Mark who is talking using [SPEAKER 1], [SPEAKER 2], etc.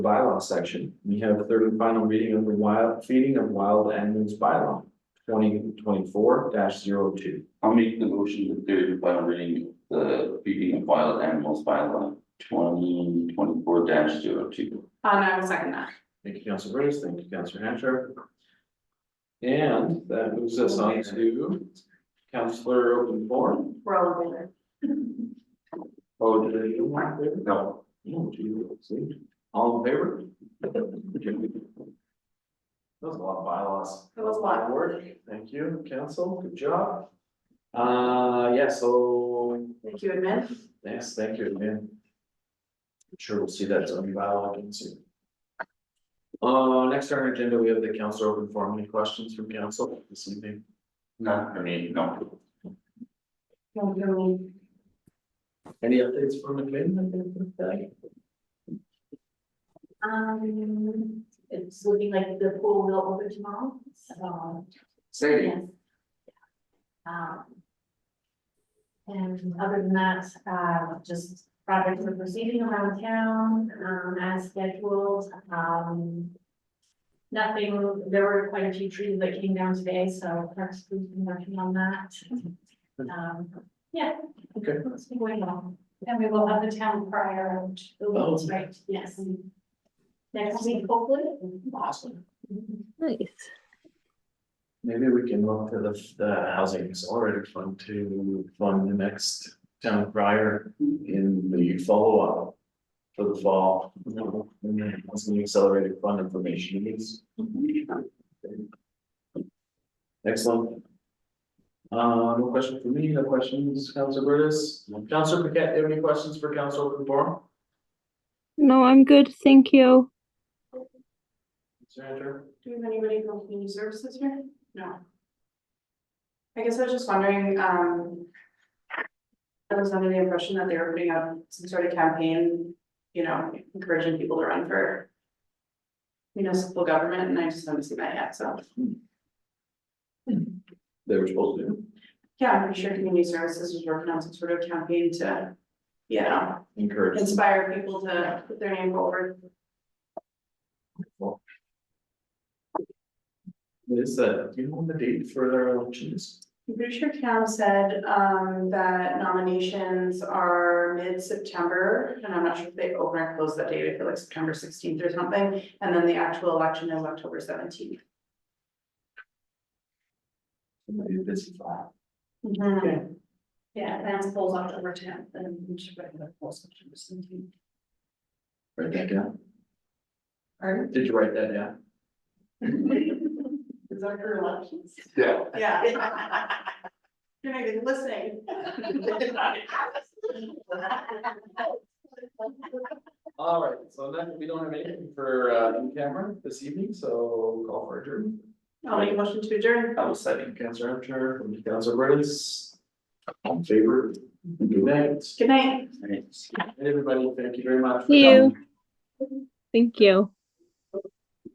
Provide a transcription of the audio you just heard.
[SPEAKER 1] bylaw section, we have the third and final reading of the wild, feeding of wild animals bylaw. Twenty twenty-four 2
[SPEAKER 2] I'll make the motion to third and final reading of the feeding of wild animals by law twenty twenty four dash zero two.
[SPEAKER 3] and Uh, I will second that.
[SPEAKER 1] Thank you, Council Bruce, thank you, Council Hancher. And that moves us on to Councilor Open Forum.
[SPEAKER 3] We're all in there.
[SPEAKER 1] Oh, did you want to?
[SPEAKER 2] No.
[SPEAKER 1] No, do you, see? all in favor? That was a lot of bylaws.
[SPEAKER 3] That was a lot.
[SPEAKER 1] of Work, thank you, council, good job. Uh, yeah, so,
[SPEAKER 3] Thank you, admin.
[SPEAKER 1] yes, thank you, man. I'm Sure, we'll see that zoning bylaw again soon. Uh, next on our agenda, we have the council open forum, any questions from council this evening?
[SPEAKER 2] Not for me, no.
[SPEAKER 3] Don't give me-
[SPEAKER 1] Any updates from the committee?
[SPEAKER 3] Um, it's looking like the pool will open tomorrow, Um, so.
[SPEAKER 2] Sadie,
[SPEAKER 3] yes. Um. And other than that, uh, just projects are proceeding around town, um, as scheduled, um. Nothing, there were quite a few trees that came down today, so Parks Group's been working on that. Um, yeah.
[SPEAKER 1] Okay.
[SPEAKER 3] It's been going on, and we will have the town prior
[SPEAKER 1] Oh.
[SPEAKER 3] to, right, yes. Next week, hopefully. Mm-hmm.
[SPEAKER 1] Awesome.
[SPEAKER 4] Nice.
[SPEAKER 1] Maybe we can look to the, the housing accelerator fund to fund the next town crier in the follow-up. For the fall, you know, and then once the accelerated fund information is. Excellent. Uh, no question for me, no questions, Council Burtis, Council Paquette, do you have any questions for Council Open Forum?
[SPEAKER 4] No, I'm good. Thank you.
[SPEAKER 1] Mr. Andrew?
[SPEAKER 3] Do we have anybody from community services here? No. I guess I was just wondering, um. I was under the impression that they were putting up some sort of campaign, you know, encouraging people to run for. Municipal government, and I just haven't seen that yet, so,
[SPEAKER 1] They were supposed to,
[SPEAKER 3] yeah, I'm pretty sure community services is working on some sort of campaign to. You know,
[SPEAKER 1] encourage,
[SPEAKER 3] inspire people to put their name forward.
[SPEAKER 1] is that, do you know when the date for their elections?
[SPEAKER 3] I'm pretty sure Cam said um that nominations are mid-September, and I'm not sure if they open or close that date, I feel like September sixteenth or something. And then the actual election is October seventeenth.
[SPEAKER 1] Somebody busy file. Okay.
[SPEAKER 3] Yeah, advance polls October tenth, and we should put the polls September seventeenth.
[SPEAKER 1] Write that down.
[SPEAKER 3] Or
[SPEAKER 1] Did you write that down?
[SPEAKER 3] is that for elections?
[SPEAKER 2] yeah.
[SPEAKER 3] Yeah. You're not even listening.
[SPEAKER 1] All right, so then we don't have anything for uh in camera this evening, so call for adjournment.
[SPEAKER 3] I'll make a motion to adjourn.
[SPEAKER 2] I was second.
[SPEAKER 1] Thank you, Councilor Armstrong, from you, Councilor Burris. All in favor, good night.
[SPEAKER 3] Good night.
[SPEAKER 1] Everybody, thank you very much. for
[SPEAKER 4] See you.
[SPEAKER 1] coming.
[SPEAKER 4] Thank you.